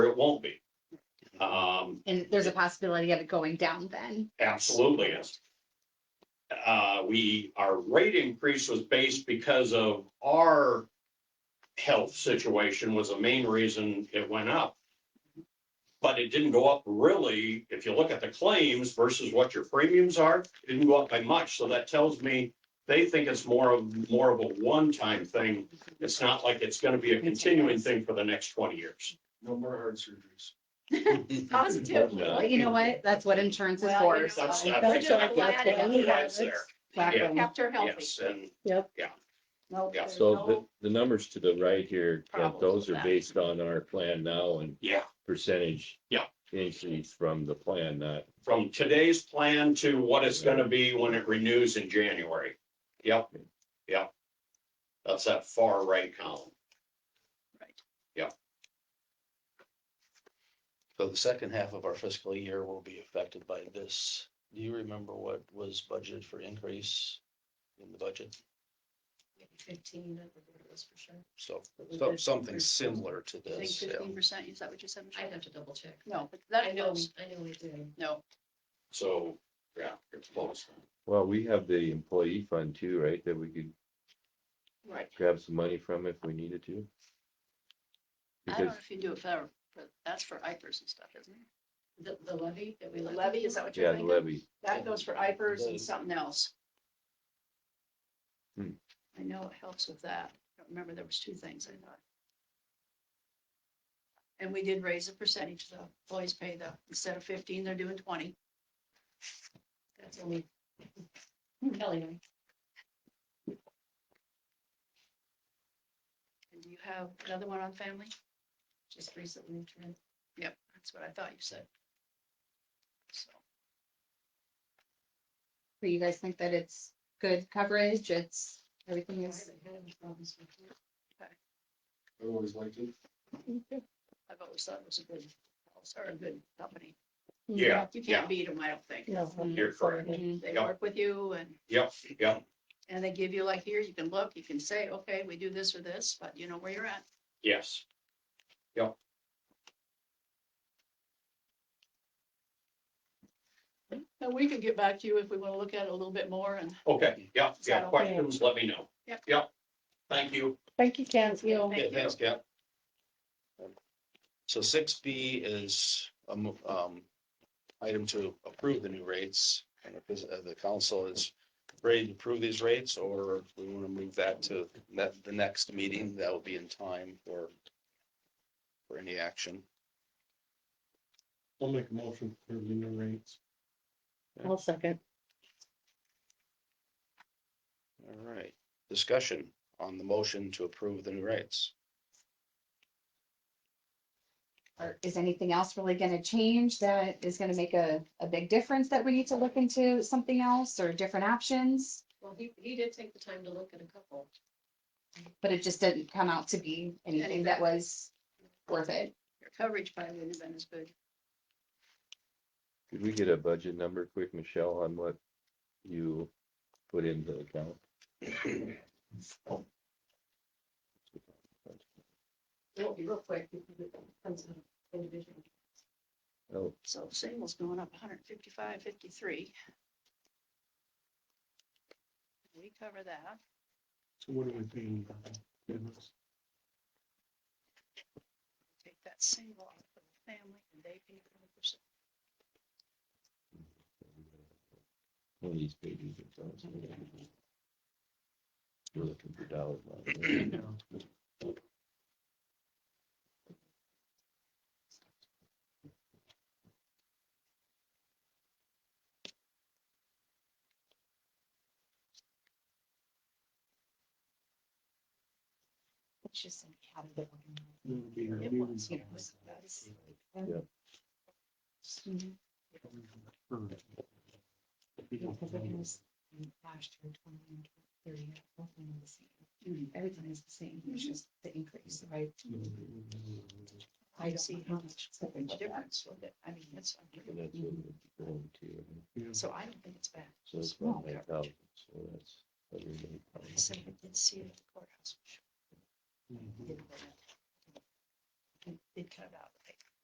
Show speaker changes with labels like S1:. S1: won't be. Um,
S2: And there's a possibility of it going down then.
S1: absolutely is. Uh, we, our rate increase was based because of our health situation was the main reason it went up. But it didn't go up really, if you look at the claims versus what your premiums are, it didn't go up by much. So that tells me they think it's more of, more of a one-time thing. It's not like it's gonna be a continuing thing for the next twenty years.
S3: No more heart surgeries.
S2: Positive. Well, you know what? That's what insurance is
S4: Well,
S2: for.
S4: you know,
S1: That's-
S2: so
S1: that's-
S4: those are the
S1: that's what
S4: last
S1: it is there.
S2: exactly.
S4: Kept her healthy.
S1: Yes, and
S4: No,
S1: Yeah.
S4: there's
S5: So
S4: no-
S5: the, the numbers to the right here, Kent,
S4: Problems
S5: those
S4: with
S5: are
S4: that.
S5: based on our plan now and
S1: yeah,
S5: percentage.
S1: Yeah.
S5: Increase from the plan, not,
S1: from today's plan to what it's gonna be when it renews in January. Yep, yep. That's that far right column.
S6: So the second half of our fiscal year will be affected by this. Do you remember what was budgeted for increase in the budget?
S4: Fifteen, I think it was for sure.
S6: So,
S4: But we
S6: so-
S4: did-
S6: something similar to
S4: I think
S6: this. yeah.
S4: fifteen percent, is that what you said? Michelle?
S7: I'd have to double check.
S4: No, but
S7: I
S4: that
S7: know,
S4: close,
S7: I know we do.
S4: no.
S1: So, yeah, it's close.
S5: well, we have the employee fund too, right? That we could
S4: Right.
S5: grab some money from if we needed to.
S4: I don't know
S5: Because
S4: if you do it for, but that's for IPers and stuff, isn't it?
S7: The, the levy that we.
S4: The
S7: levy?
S4: levy, is that what you're
S5: Yeah, the
S4: thinking?
S5: levy,
S4: That goes for IPers and something else.
S5: Hmm.
S4: I know it helps with that. I don't remember, there was two things I thought. And we did raise the percentage, the employees pay the, instead of fifteen, they're doing twenty.
S7: That's only Kelly. right?
S4: And do you have another one on family?
S7: Just recently. turned-
S4: Yep, that's what I thought you said. So,
S2: Do you guys think that it's good coverage? It's, everything
S7: I
S2: is,
S7: haven't had any problems with it.
S3: I always liked it.
S4: I've always thought it was a good, house or a good company.
S1: Yeah,
S4: You
S1: yeah.
S4: can't beat them, I don't think.
S1: You're correct.
S2: Mm-hmm.
S4: They
S1: Yep.
S4: work with you and,
S1: Yep, yep,
S4: and they give you like here, you can look, you can say, okay, we do this or this, but you know where you're at.
S1: yes.
S4: And we can get back to you if we want to look at it a little bit more and.
S1: Okay, yeah,
S4: Is
S1: yeah.
S4: that okay?
S1: Questions, let me know.
S4: Yep.
S1: Yep. Thank you.
S4: Thank you, Ken.
S6: Yeah, thanks, Cap. So six B is, um, um, item to approve the new rates. And if this- uh, the council is ready to approve these rates, or we want to move that to that, the next meeting, that will be in time for, for any action.
S3: I'll make a motion for the new rates.
S6: I'll second. All right, discussion on the motion to approve the new rates.
S2: or is anything else really gonna change that is gonna make a, a big difference that we need to look into something else or different options?
S7: Well, he, he did take the time to look at a couple.
S2: But it just didn't come out to be anything that was worth it.
S4: Your coverage probably wouldn't have been as good.
S5: could we get a budget number quick, Michelle, on what you put into account?
S7: It won't be real quick. because it comes out Individual.
S5: Oh,
S4: So single's going up 155, 53. We cover that.
S3: So what are we paying? about? Goodness.
S4: Take that single off of the family and they pay 100%.
S5: one of these pages. it's awesome. We're looking for dollars. now.
S2: It's just how to get one.
S3: It would be a
S4: It
S3: new
S4: was, Mm-hmm.
S2: you
S3: one.
S2: know, so that's-
S7: Because it was last year, twenty, thirty, both of them the same.
S4: Mm-hmm.
S2: Everything is the same, it's just the increase, right?
S4: I don't see how much difference with it. I mean, it's,
S5: And that's what we're going to.
S3: Yes.
S4: so I don't think it's bad.
S5: So it's
S4: Small
S5: about nine
S4: coverage.
S5: thousand, so that's. everybody.
S4: But I said I did see it at the courthouse. Didn't go in. Did cut it out.